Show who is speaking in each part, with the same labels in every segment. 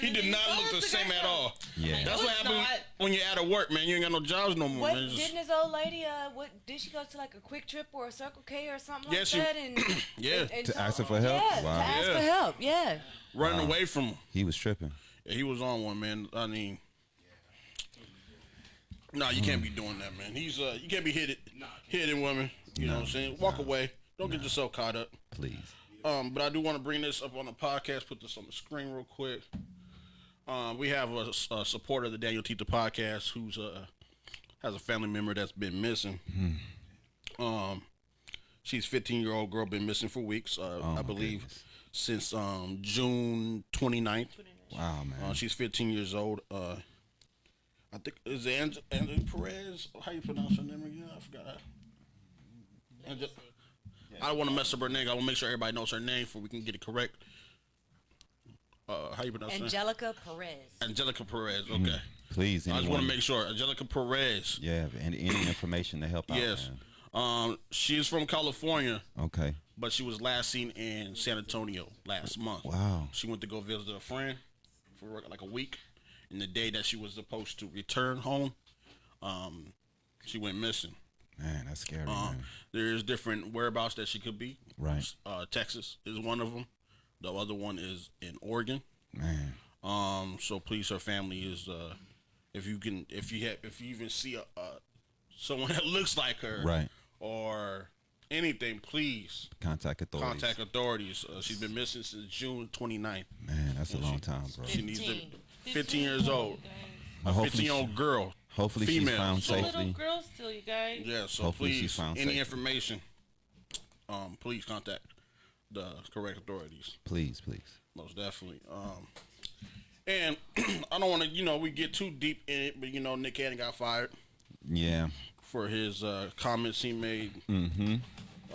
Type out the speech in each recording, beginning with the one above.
Speaker 1: He did not look the same at all.
Speaker 2: Yeah.
Speaker 1: That's
Speaker 3: No,
Speaker 1: what
Speaker 3: it's
Speaker 1: happened
Speaker 3: not.
Speaker 1: when you're out of work, man. You ain't got no jobs no more,
Speaker 3: What
Speaker 1: man. It's just-
Speaker 3: didn't his old lady? Uh, what did she go to like a quick trip or a Circle K or something
Speaker 1: Yeah,
Speaker 3: like
Speaker 1: she-
Speaker 3: that? And
Speaker 1: yeah,
Speaker 3: and, and
Speaker 2: To
Speaker 3: told-
Speaker 2: ask him for help?
Speaker 3: Yeah,
Speaker 2: Wow.
Speaker 3: to ask
Speaker 1: Yeah.
Speaker 3: for help. Yeah.
Speaker 1: running away from him.
Speaker 2: He was tripping.
Speaker 1: Yeah, he was on one, man. I mean, no, you can't be doing that, man. He's uh, you can't be hit it, hitting women. You know what I'm saying? Walk away. Don't get yourself caught up.
Speaker 2: Please.
Speaker 1: Um, but I do want to bring this up on the podcast. Put this on the screen real quick. Um, we have a, a supporter of the Daniel Tita podcast who's uh has a family member that's been missing. Um, she's 15 year old girl been missing for weeks. Uh, I believe
Speaker 2: goodness.
Speaker 1: since um June 29th.
Speaker 2: Wow, man.
Speaker 1: Uh, she's 15 years old. Uh, I think is it Ange- Angela Perez. How you pronounce her name again? I forgot. Ange- I don't want to mess up her name. I want to make sure everybody knows her name so we can get it correct. Uh, how you pronounce her name?
Speaker 3: Angelica Perez.
Speaker 1: Angelica Perez. Okay.
Speaker 2: Please.
Speaker 1: I just want
Speaker 2: anyone-
Speaker 1: to make sure Angelica Perez.
Speaker 2: Yeah, any, any information to help out.
Speaker 1: Yes.
Speaker 2: man.
Speaker 1: Um, she's from California,
Speaker 2: Okay.
Speaker 1: but she was last seen in San Antonio last month.
Speaker 2: Wow.
Speaker 1: She went to go visit a friend for like a week, and the day that she was supposed to return home, um, she went missing.
Speaker 2: Man, that's scary.
Speaker 1: Um,
Speaker 2: man.
Speaker 1: there's different whereabouts that she could be.
Speaker 2: Right.
Speaker 1: Uh, Texas is one of them. The other one is in Oregon.
Speaker 2: Man.
Speaker 1: Um, so please, her family is. Uh, if you can, if you have, if you even see a, uh, someone that looks like her,
Speaker 2: Right.
Speaker 1: or anything, please
Speaker 2: Contact authorities.
Speaker 1: contact authorities. Uh, she's been missing since June 29th.
Speaker 2: Man, that's a long time, bro.
Speaker 1: She needs to. 15 years old.
Speaker 2: Well, hopefully,
Speaker 1: 15 year
Speaker 2: she,
Speaker 1: old girl.
Speaker 2: hopefully she's
Speaker 1: female.
Speaker 2: found
Speaker 1: So-
Speaker 4: A little
Speaker 2: safely.
Speaker 4: girl still, you guys.
Speaker 1: Yeah, so
Speaker 2: Hopefully she
Speaker 1: please,
Speaker 2: found
Speaker 1: any
Speaker 2: safe.
Speaker 1: information, um, please contact the correct authorities.
Speaker 2: Please, please.
Speaker 1: Most definitely. Um, and I don't want to, you know, we get too deep in it, but you know, Nick Cannon got fired
Speaker 2: Yeah.
Speaker 1: for his uh, comments he made,
Speaker 2: Mm-hmm.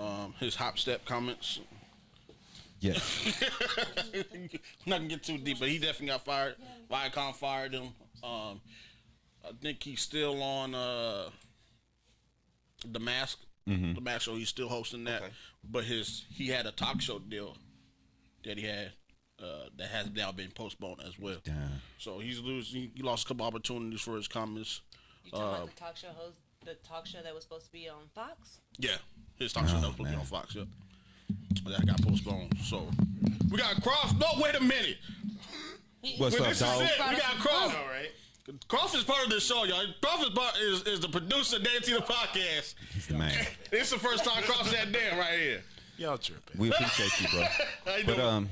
Speaker 1: um, his hop step comments.
Speaker 2: Yes.
Speaker 1: not gonna get too deep, but he definitely got fired. Viacom fired him. Um, I think he's still on uh, the mask.
Speaker 2: Mm-hmm.
Speaker 1: The mask show. He's still hosting that, but his he had a talk show deal that he had uh, that has now been postponed as well.
Speaker 2: Damn.
Speaker 1: So he's losing. He lost a couple opportunities for his comments.
Speaker 3: You talking
Speaker 1: Uh,
Speaker 3: about the talk show host? The talk show that was supposed to be on Fox?
Speaker 1: Yeah, his talk show
Speaker 2: Oh,
Speaker 1: that was supposed to be on Fox. Yep. But that got postponed. So we got Cross. No, wait a minute.
Speaker 2: What's
Speaker 1: Well,
Speaker 2: up,
Speaker 1: this is
Speaker 2: dog?
Speaker 1: it. We got Cross.
Speaker 5: All right.
Speaker 1: Croft is part of this show, y'all. Croft is, part, is, is the producer of Dante the podcast.
Speaker 2: He's the man.
Speaker 1: This is the first time Croft that damn right here.
Speaker 5: Y'all tripping.
Speaker 2: We appreciate you, bro.
Speaker 1: How you
Speaker 2: But
Speaker 1: doing?
Speaker 2: um,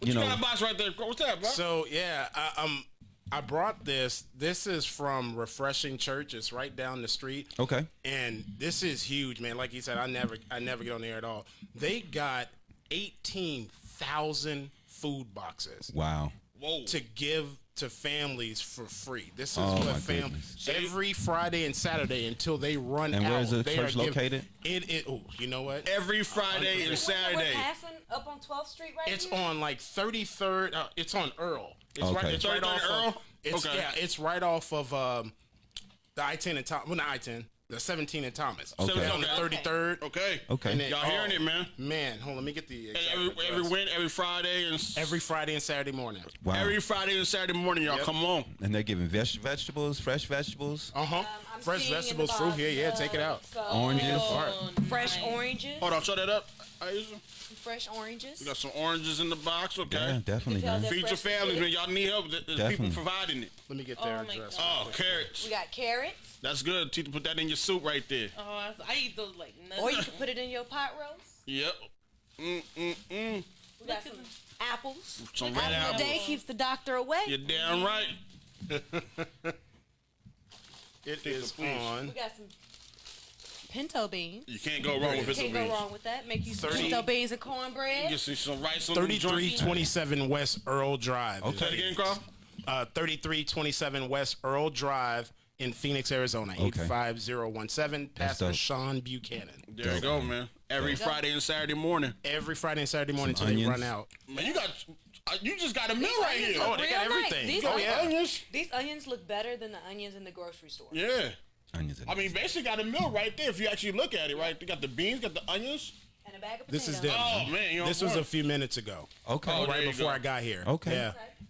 Speaker 2: you
Speaker 1: you
Speaker 2: know,
Speaker 1: got a box right there. Croft. What's that, bro?
Speaker 5: So yeah, I, um, I brought this. This is from Refreshing Church. It's right down the street.
Speaker 2: okay.
Speaker 5: And this is huge, man. Like you said, I never, I never get on there at all. They got eighteen thousand food boxes
Speaker 2: Wow.
Speaker 1: Whoa.
Speaker 5: to give to families for free. This is
Speaker 2: Oh,
Speaker 5: what
Speaker 2: my
Speaker 5: families
Speaker 2: goodness.
Speaker 5: every Friday and Saturday until they run
Speaker 2: And
Speaker 5: out.
Speaker 2: where is the
Speaker 5: they
Speaker 2: church
Speaker 5: are giving-
Speaker 2: located?
Speaker 5: it is. Oh, you know what?
Speaker 1: Every Friday and
Speaker 3: The one that
Speaker 1: Saturday.
Speaker 3: We're passing up on 12th Street right
Speaker 5: It's
Speaker 3: here?
Speaker 5: on like 33rd. Uh, it's on Earl. It's
Speaker 2: Okay.
Speaker 5: right. It's right
Speaker 1: 33rd
Speaker 5: off Of,
Speaker 1: Earl?
Speaker 5: it's
Speaker 1: Okay.
Speaker 5: yeah. It's right off of um, the I-10 and Thomas. Well, not I-10. The 17 and Thomas. So
Speaker 2: Okay.
Speaker 5: it's on the 33rd.
Speaker 1: Okay.
Speaker 2: Okay.
Speaker 5: And then- oh,
Speaker 1: Y'all hearing it, man?
Speaker 5: Man, hold on. Let me get the exact
Speaker 1: Every,
Speaker 5: address.
Speaker 1: every win, every Friday and s-
Speaker 5: Every Friday and Saturday morning.
Speaker 2: Wow.
Speaker 1: every Friday and Saturday morning, y'all. Come on.
Speaker 2: and they're giving veg- vegetables, fresh vegetables.
Speaker 1: Oh,
Speaker 5: Uh huh.
Speaker 3: Um, I'm
Speaker 5: Fresh
Speaker 3: seeing in the
Speaker 5: vegetables, fruit
Speaker 3: box,
Speaker 5: here. Yeah,
Speaker 3: uh,
Speaker 5: take it out.
Speaker 3: some
Speaker 2: Oranges.
Speaker 3: Fresh oranges.
Speaker 1: Hold on, show that up. Aisha.
Speaker 3: Fresh oranges.
Speaker 1: We got some oranges in the box.
Speaker 2: Yeah,
Speaker 1: Okay.
Speaker 2: definitely, man.
Speaker 3: Because they're-
Speaker 1: Feed your families, man. Y'all need help. There- There's people
Speaker 2: Definitely.
Speaker 1: providing it.
Speaker 5: Let me get
Speaker 4: Oh
Speaker 5: their
Speaker 4: my
Speaker 5: address.
Speaker 4: God.
Speaker 1: Oh, carrots.
Speaker 3: We got carrots.
Speaker 1: That's good. Tita, put that in your soup right there.
Speaker 4: Oh, I, was- I eat those like nuts.
Speaker 3: Or you can put it in your pot roast.
Speaker 1: Yep. Mm mm mm.
Speaker 3: We got
Speaker 4: Look
Speaker 3: some
Speaker 4: at
Speaker 3: apples.
Speaker 1: Some red
Speaker 3: Apple a
Speaker 1: apples.
Speaker 3: day keeps the doctor away.
Speaker 1: You're damn right.
Speaker 5: It is
Speaker 1: please.
Speaker 5: on
Speaker 3: We got some pinto beans.
Speaker 1: You can't go wrong with pistol
Speaker 3: Can't go
Speaker 1: beans.
Speaker 3: wrong with that. Make you some
Speaker 5: 30.
Speaker 3: pinto beans and cornbread.
Speaker 1: Get some, some rice on them joints.
Speaker 5: 3327 West Earl Drive. is
Speaker 1: Say it again, Carl.
Speaker 5: uh, 3327 West Earl Drive in Phoenix, Arizona,
Speaker 2: Okay.
Speaker 5: 85017. Pastor
Speaker 2: dope.
Speaker 5: Sean Buchanan.
Speaker 1: There you go, man. Every Friday and Saturday morning.
Speaker 5: Every Friday and Saturday morning
Speaker 2: Some
Speaker 5: until they
Speaker 2: onions.
Speaker 5: run out.
Speaker 1: Man, you got uh, you just got a meal right
Speaker 3: onions
Speaker 1: here.
Speaker 3: are
Speaker 5: Oh, they got
Speaker 3: real nice.
Speaker 5: everything.
Speaker 3: These,
Speaker 5: Oh,
Speaker 3: onions,
Speaker 5: yeah.
Speaker 1: Onions.
Speaker 3: these onions look better than the onions in the grocery store.
Speaker 1: Yeah.
Speaker 2: Onions.
Speaker 1: I mean, basically got a meal right there if you actually look at it, right? You got the beans, got the onions.
Speaker 3: And a bag of potatoes.
Speaker 5: This is them.
Speaker 1: Oh man, you
Speaker 5: This was a few minutes ago.
Speaker 2: okay.
Speaker 1: Oh, there
Speaker 5: Right
Speaker 1: you
Speaker 5: before
Speaker 1: go.
Speaker 5: I got here.
Speaker 2: Okay.
Speaker 5: Yeah.